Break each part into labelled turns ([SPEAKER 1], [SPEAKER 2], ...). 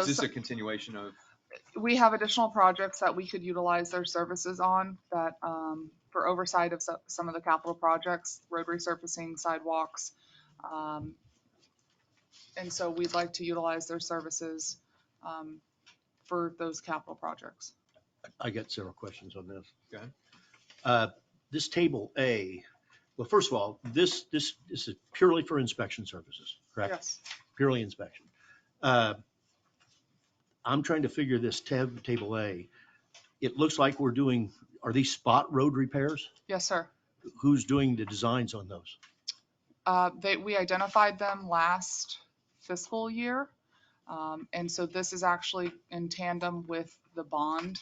[SPEAKER 1] Is this a continuation of,
[SPEAKER 2] we have additional projects that we could utilize their services on that, um, for oversight of so- some of the capital projects, road resurfacing, sidewalks. um, And so we'd like to utilize their services, um, for those capital projects.
[SPEAKER 3] I got several questions on this.
[SPEAKER 1] Go ahead.
[SPEAKER 3] Uh, This table A, well, first of all, this, this, this is purely for inspection services, correct?
[SPEAKER 2] Yes.
[SPEAKER 3] Purely inspection. Uh, I'm trying to figure this tab, table A. It looks like we're doing, are these spot road repairs?
[SPEAKER 2] Yes, sir.
[SPEAKER 3] Who's doing the designs on those?
[SPEAKER 2] Uh, They, we identified them last fiscal year. um, And so this is actually in tandem with the bond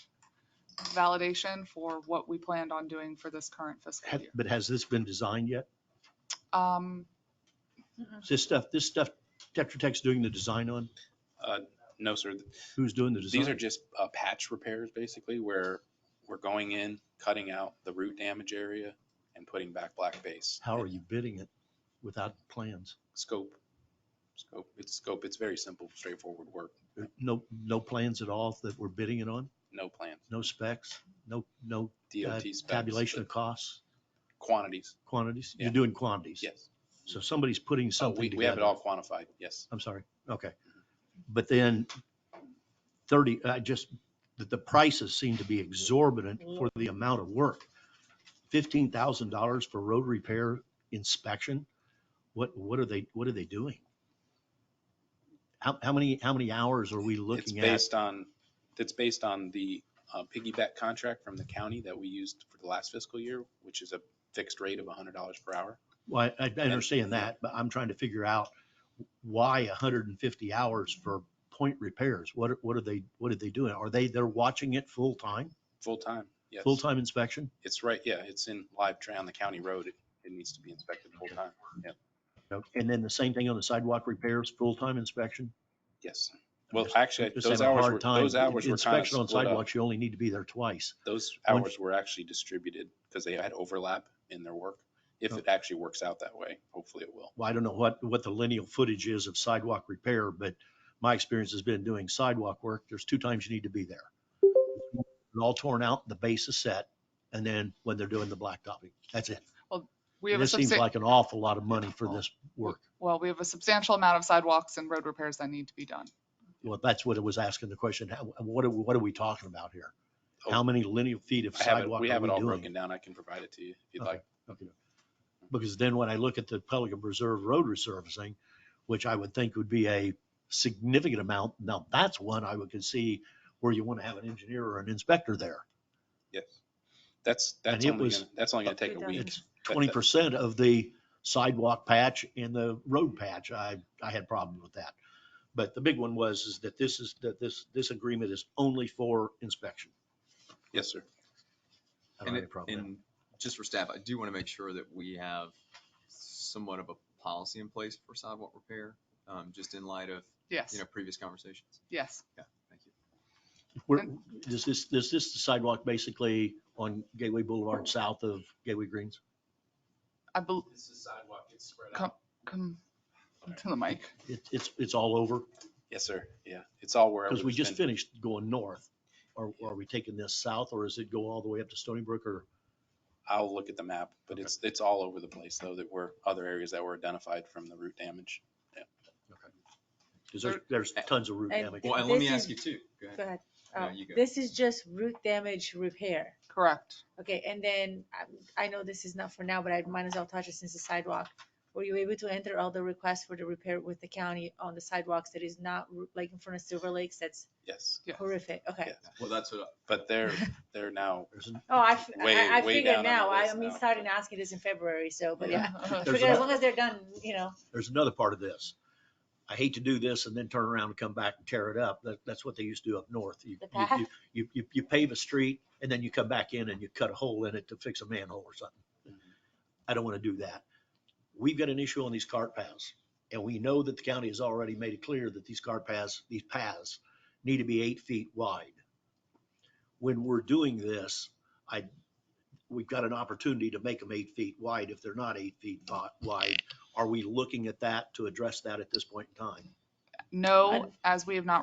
[SPEAKER 2] validation for what we planned on doing for this current fiscal
[SPEAKER 3] Had-
[SPEAKER 2] year.
[SPEAKER 3] But has this been designed yet?
[SPEAKER 2] Um,
[SPEAKER 3] Is This stuff, this stuff Tetra Tech's doing the design on?
[SPEAKER 4] No, sir.
[SPEAKER 3] Who's doing the
[SPEAKER 4] These are
[SPEAKER 3] design?
[SPEAKER 4] just uh, patch repairs, basically, where we're going in, cutting out the root damage area and putting back black base.
[SPEAKER 3] How are you bidding it without plans?
[SPEAKER 4] Scope, scope, it's scope. It's very simple, straightforward work.
[SPEAKER 3] No, no plans at all that we're bidding it on?
[SPEAKER 4] No plan.
[SPEAKER 3] no specs, no, no uh,
[SPEAKER 4] DOT specs.
[SPEAKER 3] tabulation
[SPEAKER 4] the
[SPEAKER 3] of costs,
[SPEAKER 4] Quantities,
[SPEAKER 3] quantities? You're
[SPEAKER 4] Yeah.
[SPEAKER 3] doing quantities?
[SPEAKER 4] yes.
[SPEAKER 3] So somebody's putting
[SPEAKER 4] Oh,
[SPEAKER 3] something
[SPEAKER 4] we,
[SPEAKER 3] together?
[SPEAKER 4] we have it all quantified, yes.
[SPEAKER 3] I'm sorry, okay. But then 30, I just, the, the prices seem to be exorbitant for the amount of work. $15,000 for road repair inspection? What, what are they, what are they doing? How, how many, how many hours are we
[SPEAKER 4] It's
[SPEAKER 3] looking at?
[SPEAKER 4] based on, it's based on the uh, piggyback contract from the county that we used for the last fiscal year, which is a fixed rate of hundred dollars per hour.
[SPEAKER 3] Well, I, I understand that, but I'm trying to figure out why hundred and fifty hours for point repairs? What, are- what are they, what are they doing? Are they, they're watching it full time,
[SPEAKER 4] Full time, yes.
[SPEAKER 3] full time inspection?
[SPEAKER 4] It's right, yeah, it's in live tray on the county road. It, it needs to be inspected full time. Yeah,
[SPEAKER 3] No, And then the same thing on the sidewalk repairs, full time inspection?
[SPEAKER 4] yes. Well,
[SPEAKER 3] just-
[SPEAKER 4] actually,
[SPEAKER 3] Just
[SPEAKER 4] those
[SPEAKER 3] having a
[SPEAKER 4] hours
[SPEAKER 3] hard
[SPEAKER 4] were,
[SPEAKER 3] time.
[SPEAKER 4] those hours were kind of
[SPEAKER 3] Inspection on
[SPEAKER 4] split up.
[SPEAKER 3] sidewalks, you only need to be there twice.
[SPEAKER 4] Those
[SPEAKER 3] when-
[SPEAKER 4] hours were actually distributed because they had overlap in their work. If
[SPEAKER 3] Oh.
[SPEAKER 4] it actually works out that way, hopefully it will.
[SPEAKER 3] Well, I don't know what, what the lineal footage is of sidewalk repair, but my experience has been doing sidewalk work, there's two times you need to be there. And All torn out, the base is set, and then when they're doing the blacktopping, that's it.
[SPEAKER 2] We have a
[SPEAKER 3] This seems
[SPEAKER 2] substan-
[SPEAKER 3] like an awful lot of money for this
[SPEAKER 4] Oh.
[SPEAKER 3] work.
[SPEAKER 2] Well, we have a substantial amount of sidewalks and road repairs that need to be done.
[SPEAKER 3] Well, that's what it was asking the question. How, what are, we- what are we talking about here? How many linear feet of
[SPEAKER 4] Oh. I have it,
[SPEAKER 3] sidewalk are
[SPEAKER 4] we
[SPEAKER 3] we
[SPEAKER 4] have it all
[SPEAKER 3] doing?
[SPEAKER 4] broken down. I can provide it to you if you'd
[SPEAKER 3] Okay.
[SPEAKER 4] like.
[SPEAKER 3] Okay. Because then when I look at the Pelican Preserve Road resurfacing, which I would think would be a significant amount, now that's one I would could see where you want to have an engineer or an inspector there.
[SPEAKER 4] Yes. That's,
[SPEAKER 3] And
[SPEAKER 4] that's
[SPEAKER 3] it
[SPEAKER 4] only
[SPEAKER 3] was-
[SPEAKER 4] gonna, that's only gonna take a
[SPEAKER 5] Redundant.
[SPEAKER 4] week.
[SPEAKER 3] It's
[SPEAKER 4] That-
[SPEAKER 3] twenty percent of the sidewalk patch and the road patch. I, I had problems with that. But the big one was, is that this is, that this, this agreement is only for inspection.
[SPEAKER 4] Yes, sir.
[SPEAKER 3] I don't
[SPEAKER 1] and
[SPEAKER 3] have
[SPEAKER 1] it-
[SPEAKER 3] a problem with
[SPEAKER 1] and just for staff, I do want to make sure that we have somewhat of a policy in place for sidewalk repair, um, just in light of,
[SPEAKER 2] Yes,
[SPEAKER 1] you know, previous conversations.
[SPEAKER 2] yes.
[SPEAKER 1] Thank you.
[SPEAKER 3] that. We're, is this, is this the sidewalk basically on Gateway Boulevard south of Gateway Greens?
[SPEAKER 2] I bel-
[SPEAKER 4] This is sidewalk, it's spread
[SPEAKER 2] out. come to the mic.
[SPEAKER 3] It, it's, it's all over?
[SPEAKER 4] Yes, sir. Yeah, it's all wherever.
[SPEAKER 3] Because we
[SPEAKER 4] it's
[SPEAKER 3] just
[SPEAKER 4] been-
[SPEAKER 3] finished going north. Are, are we taking this south or is it go all the way up to Stony Brook or?
[SPEAKER 4] I'll look at the map, but
[SPEAKER 3] Okay.
[SPEAKER 4] it's, it's all over the place though, that were other areas that were identified from the root damage.
[SPEAKER 3] Because there's, there's tons of root
[SPEAKER 5] And-
[SPEAKER 3] damage.
[SPEAKER 1] Well, and let
[SPEAKER 5] This
[SPEAKER 1] me ask
[SPEAKER 5] is-
[SPEAKER 1] you too. Go ahead.
[SPEAKER 5] Go ahead.
[SPEAKER 1] No,
[SPEAKER 5] Uh,
[SPEAKER 1] you go.
[SPEAKER 5] This is just root damage repair.
[SPEAKER 2] Correct.
[SPEAKER 5] Okay, and then um, I know this is not for now, but I might as well touch it since the sidewalk. Were you able to enter all the requests for the repair with the county on the sidewalks that is not ru- like in front of Silver Lakes? That's
[SPEAKER 4] Yes,
[SPEAKER 2] Yes.
[SPEAKER 5] horrific. Okay.
[SPEAKER 4] Yeah.
[SPEAKER 1] Well, that's what,
[SPEAKER 4] but they're, they're now,
[SPEAKER 3] There's an-
[SPEAKER 5] Oh, I, f- I-
[SPEAKER 4] Way-
[SPEAKER 5] I
[SPEAKER 4] way
[SPEAKER 5] figured
[SPEAKER 4] down on the
[SPEAKER 5] now. I
[SPEAKER 4] list
[SPEAKER 5] mean,
[SPEAKER 4] now.
[SPEAKER 5] started asking this in February, so, but yeah. I
[SPEAKER 3] There's
[SPEAKER 5] figured as
[SPEAKER 3] a-
[SPEAKER 5] long as they're done, you know.
[SPEAKER 3] There's another part of this. I hate to do this and then turn around and come back and tear it up. That, that's what they used to do up north. You,
[SPEAKER 5] The
[SPEAKER 3] you- you-
[SPEAKER 5] path.
[SPEAKER 3] you, you, you pave a street and then you come back in and you cut a hole in it to fix a manhole or something. I don't want to do that. We've got an issue on these cart paths and we know that the county has already made it clear that these cart paths, these paths need to be eight feet wide. When we're doing this, I, we've got an opportunity to make them eight feet wide. If they're not eight feet wi- wide, are we looking at that to address that at this point in time?
[SPEAKER 2] No, as we have not